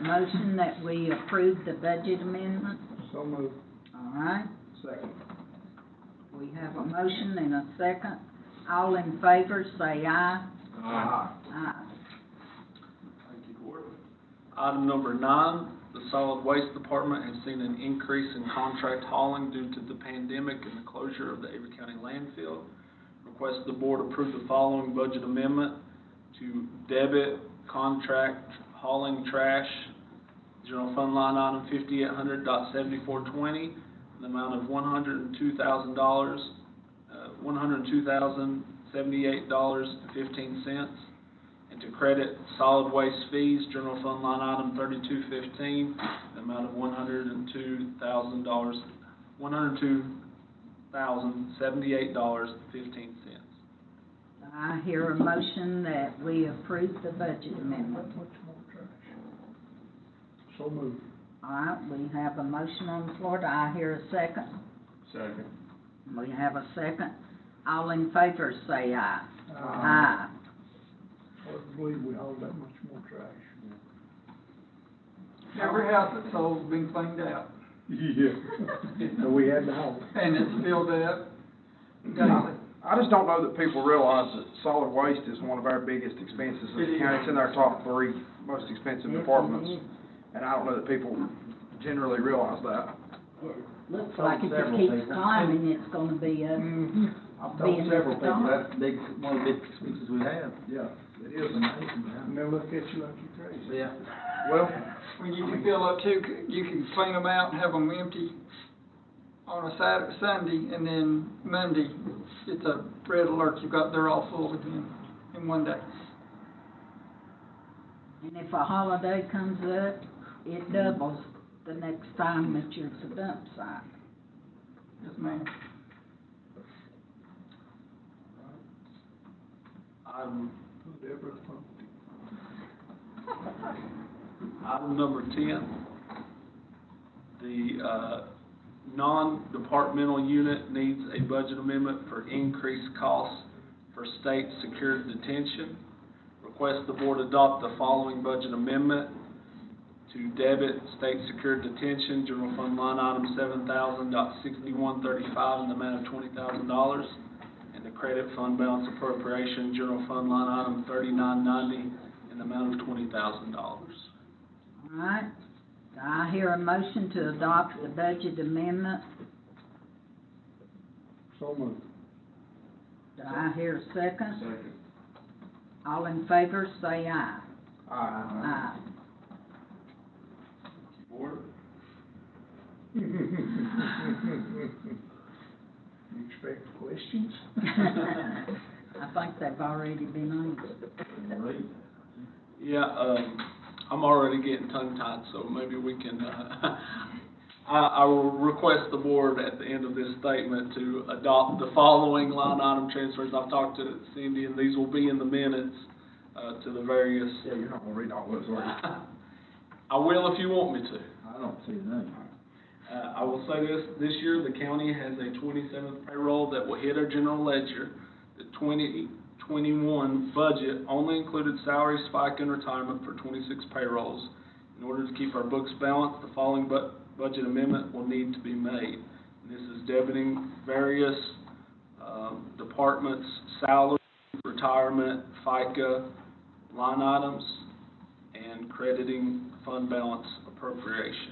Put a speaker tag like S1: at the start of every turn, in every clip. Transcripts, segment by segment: S1: motion that we approve the budget amendment?
S2: So moved.
S1: All right,
S2: Second.
S1: we have a motion and a second. All in favor, say aye.
S2: Aye.
S1: Aye.
S3: Thank you, Gordon. Item number nine, the solid waste department has seen an increase in contract hauling due to the pandemic and the closure of the Avery County landfill. Request the board approve the following budget amendment to debit contract hauling trash, general fund line item fifty-eight hundred dot seventy-four twenty, an amount of one hundred and two thousand dollars, uh, one hundred and two thousand seventy-eight dollars and fifteen cents and to credit solid waste fees, general fund line item thirty-two fifteen, amount of one hundred and two thousand dollars, one hundred and two thousand, seventy-eight dollars, fifteen cents.
S1: I hear a motion that we approve the budget amendment.
S2: So moved.
S1: All right, we have a motion on the floor. Do I hear a second?
S2: Second.
S1: We have a second. All in favor, say aye. Aye.
S2: Hard to believe we hauled that much more trash.
S4: Every house that's sold's been cleaned out,
S2: Yeah. So we had to haul.
S4: and it's filled up daily.
S5: I just don't know that people realize that solid waste is one of our biggest expenses in the county. It's in our top three most
S2: Mm-hmm.
S5: expensive departments. And I don't know that people generally realize that.
S1: Looks like if it keeps climbing, it's gonna be up.
S6: I've
S1: Being
S6: told several people
S1: gone.
S6: that's big, one of the big expenses we have.
S2: Yeah.
S6: It is amazing,
S2: And they look at you like you're crazy.
S6: Yeah.
S5: Well,
S4: When you can fill up two, you can clean them out and have them empty on a Saturday, Sunday, and then Monday, it's a red alert, you've got, they're all full again in one day.
S1: And if a holiday comes up, it doubles the next time that you're at the dump site.
S4: Yes, ma'am.
S3: Item,
S2: Deborah pumped it.
S3: item number ten, the, uh, non-departmental unit needs a budget amendment for increased costs for state secured detention. Request the board adopt the following budget amendment to debit state secured detention, general fund line item seven thousand dot sixty-one thirty-five in the amount of twenty thousand dollars, and the credit fund balance appropriation, general fund line item thirty-nine ninety in the amount of twenty thousand dollars.
S1: All right, Do I hear a motion to adopt the budget amendment.
S2: So moved.
S1: Do I hear a second? Second. All in favor, say aye. Aye.
S3: Board?
S2: You expect questions?
S1: I think they've already been on.
S3: Yeah, um, I'm already getting tongue-tied, so maybe we can, uh, I, I will request the board at the end of this statement to adopt the following line item transfers. I've talked to Cindy, and these will be in the minutes, uh, to the various.
S5: yeah, you're not gonna read all those, are
S3: I will if you want me to.
S6: I don't see none.
S3: Uh, I will say this, this year, the county has a twenty-seventh payroll that will hit our general ledger. The twenty twenty-one budget only included salary spike and retirement for twenty-six payrolls. In order to keep our books balanced, the following bu- budget amendment will need to be made. And This is debiting various, um, departments, salary, retirement, FICA, line items, and crediting fund balance appropriation.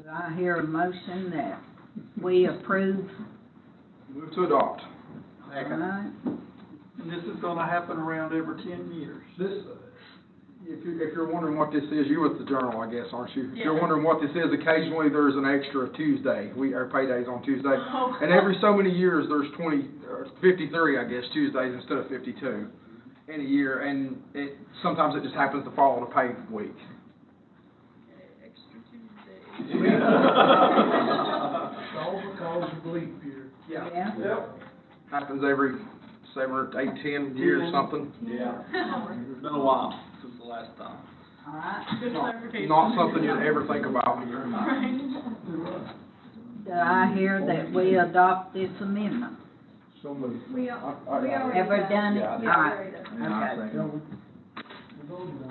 S1: it. Do I hear a motion that we approve?
S5: we? Move to adopt.
S1: All right.
S4: And this is gonna happen around every ten years.
S5: This, if you, if you're wondering what this is, you're with the journal, I guess, aren't you? If you're
S7: Yeah.
S5: wondering what this is, occasionally there's an extra Tuesday. We, our payday's on Tuesday.
S7: Oh.
S5: And every so many years, there's twenty, or fifty-three, I guess, Tuesdays instead of fifty-two in a year, and it, sometimes it just happens to fall on a pay week.
S7: Extra
S2: It's all because of leap year.
S1: Yeah.
S5: Happens every seven or eight, ten years, something.
S3: Yeah. It's been a while since the last time.
S1: All right.
S7: Good clarification.
S5: Not something you'd ever think about.
S7: Right.
S1: Do I hear that we adopt this amendment?
S2: So moved.
S7: We, al- we already.
S1: Ever done it?
S6: Yeah, I
S1: All
S6: did.
S1: right.
S7: Alright.
S6: And I
S1: Okay.
S6: think-
S2: Yeah, we- we voted on it.